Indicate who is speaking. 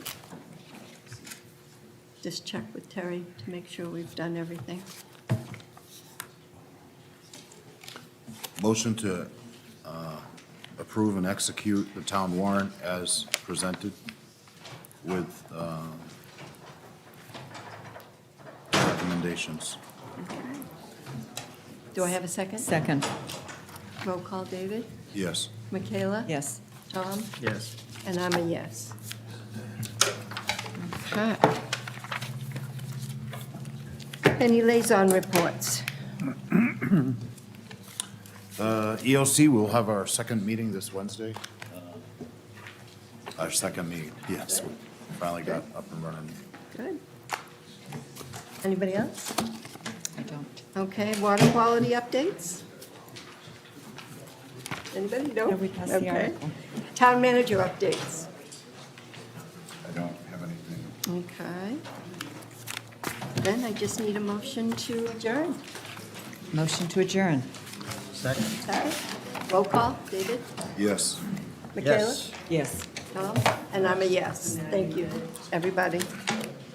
Speaker 1: just check with Terry to make sure we've done everything.
Speaker 2: Motion to uh, approve and execute the town warrant as presented with uh, recommendations.
Speaker 1: Do I have a second?
Speaker 3: Second,
Speaker 1: Roll call, David?
Speaker 2: Yes.
Speaker 1: Michaela?
Speaker 3: yes.
Speaker 1: Tom?
Speaker 4: Yes.
Speaker 1: And I'm a yes. Okay. Any liaison reports?
Speaker 2: Uh, EOC, we'll have our second meeting this Wednesday. Uh, Our second meeting, yes. we Finally got up and running.
Speaker 1: Good. Anybody else?
Speaker 3: I don't.
Speaker 1: Okay, water quality updates? Anybody? No?
Speaker 3: No, we passed the
Speaker 1: Okay.
Speaker 3: article.
Speaker 1: Town manager updates?
Speaker 2: I don't have anything.
Speaker 1: Okay. Then I just need a motion to adjourn.
Speaker 3: Motion to adjourn.
Speaker 4: Second?
Speaker 1: Sorry. Roll call, David?
Speaker 2: Yes.
Speaker 1: Michaela?
Speaker 4: Yes.
Speaker 3: Yes.
Speaker 1: Tom? And I'm a yes. Thank you, everybody.